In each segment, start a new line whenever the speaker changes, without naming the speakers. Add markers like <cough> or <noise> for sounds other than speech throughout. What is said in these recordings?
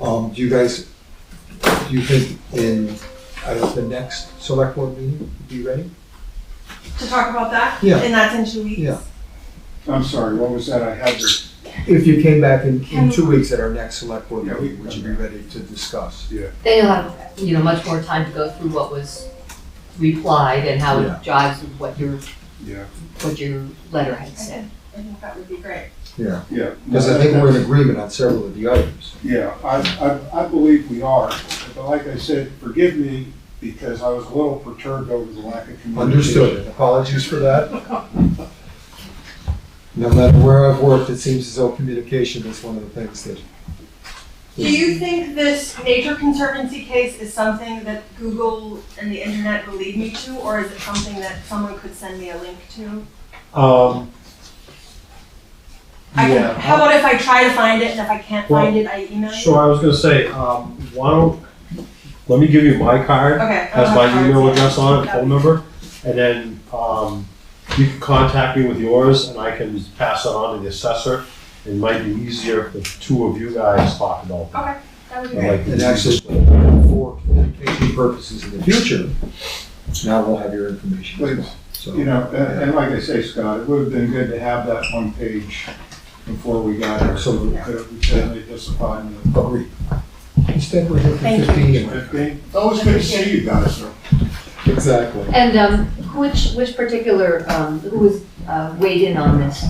Um, do you guys, do you think in, out of the next select board meeting, you'd be ready?
to talk about that?
Yeah.
And that's in two weeks?
Yeah.
I'm sorry, what was that? I had your,
If you came back in, in
Can-
two weeks at our next select board
Yeah, we
meeting,
can
would you
come
be
back.
ready to discuss?
Then you'll have, you know, much more time to go through what was replied and how
Yeah.
it jives with what your,
yeah,
what your letter had said.
I think that would be great.
Yeah,
yeah.
because I think we're in agreement on several of the items.
Yeah, I, I, I believe we are, but like I said, forgive me because I was a little perturbed over the lack of communication.
Understood, apologies for <laughs> that. No matter where I've worked, it seems as though communication is one of the things that.
Do you think this Nature Conservancy case is something that Google and the internet will lead me to, or is it something that someone could send me a link to?
Um,
I
yeah.
can, how about if I try to find it, and if I can't
Well,
find it, I email you?
Sure, I was gonna say, um, why don't, let me give you my card,
Okay. I'll
has
have
my
cards,
email
yeah.
address on it,
That'd
phone
be-
number, and then, um, you can contact me with yours, and I can pass that on to the assessor. It might be easier if the two of you guys talk about that.
Okay, that would be
I
great.
like
And
the-
actually, for communication purposes in the future, now we'll have your information as well.
You
So,
know, and, and like I say, Scott, it would have been good to have that one page before we got here.
Absolutely.
But we certainly disappointed.
agreed. Instead, we're here
Thank
for
you.
fifteen.
Fifteen, always good to see you guys, though.
Exactly.
And, um, which, which particular, um, who was, uh, weighed in on this?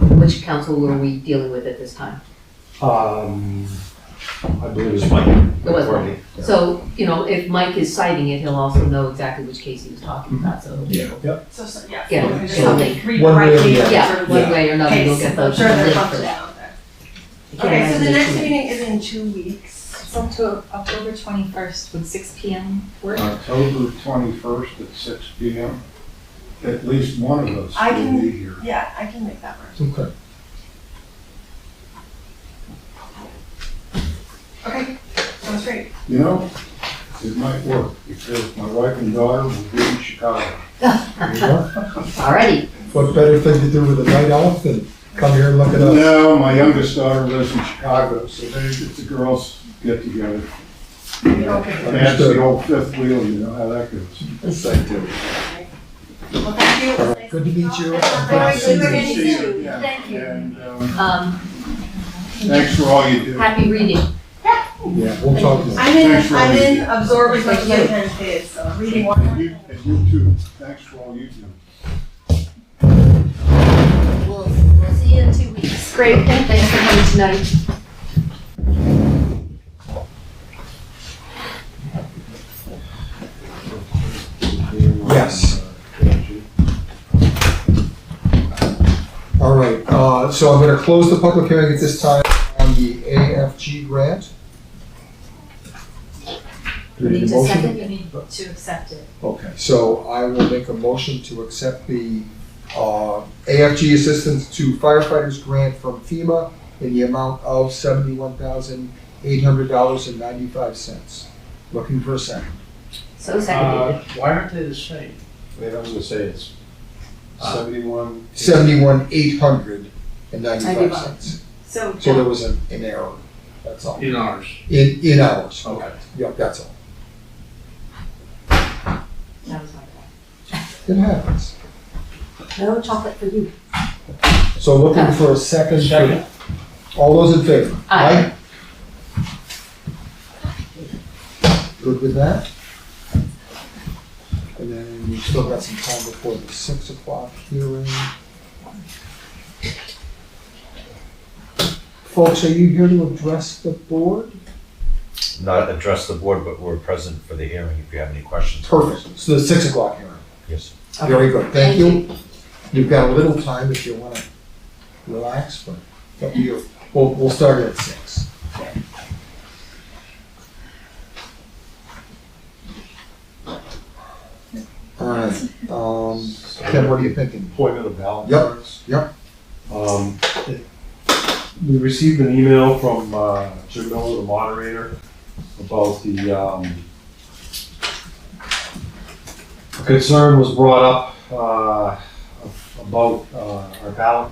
Which council were we dealing with at this time?
Um, I believe it's Mike.
It was Mike.
Courtney.
So, you know, if Mike is citing it, he'll also know exactly which case he was talking about, so.
Yeah.
So, so, yeah.
Yeah,
so there's
so
something. Read
one way or
correctly
the other.
sort
Yeah,
of
one
like
way or another, you'll
case.
get those.
I'm sure there's
linked.
something out there.
You can't
Okay, so the
imagine
next
it's-
meeting is in two weeks.
It's up to October twenty-first, would six P M work?
October twenty-first at six P M. At least one of us
I
will
can-
be here.
Yeah, I can make that work.
Okay.
Okay, sounds great.
You know, it might work because my wife and daughter will be in Chicago.
There you are.
Alrighty,
What better thing to do with a night off than come here and look at us?
No, my youngest daughter lives in Chicago, so they, if the girls get together.
Okay.
That's the old fifth wheel, you know how that goes.
Yes, I do.
Well, thank you. It was nice
Good to meet you.
talk.
Very good to
Thank
meet
you.
you.
Yeah.
Thank you.
And, um,
um,
thanks for all you do.
happy reading.
Yeah, we'll talk more.
I'm in,
Thanks for
I'm
reading.
in absorb as much as I can today, so reading one more
And you,
thing.
and you too. Thanks for all you do.
We'll, we'll see you in two weeks. Great, thanks for coming tonight.
Yes. All right, uh, so I'm gonna close the public hearing at this time on the AFG grant. Do we
You
need
need
a
to
motion?
second, you need to accept it.
Okay, so I will make a motion to accept the uh, AFG assistance to firefighters grant from FEMA in the amount of seventy-one thousand eight hundred dollars and ninety-five cents. Looking for a second.
So
Uh,
seconded.
why aren't they the same? Uh, Wait, I was gonna say it's seventy-one.
Seventy-one eight hundred and ninety-five
Ninety-five.
cents.
So,
So there was an an error, that's all.
in ours.
In, in hours.
Okay.
Yep, that's all.
That was my bad.
It happens.
No chocolate for you.
So looking for a second.
Second.
All those in favor?
Aye.
Aye? Good with that? And then we've still got some time before the six o'clock hearing. Folks, are you here to address the board?
not address the board, but we're present for the hearing if you have any questions.
Perfect, so the six o'clock hearing.
Yes.
Very good, thank you. You've got a little time if you wanna relax, but it's up to you. We'll, we'll start at six. Alright, um, Ken, what are you thinking?
Appointment of ballot
Yep,
boards.
yep.
Um, it- we received an email from, uh, Jim Miller, the moderator, about the, um, a concern was brought up, uh, about, uh, our ballot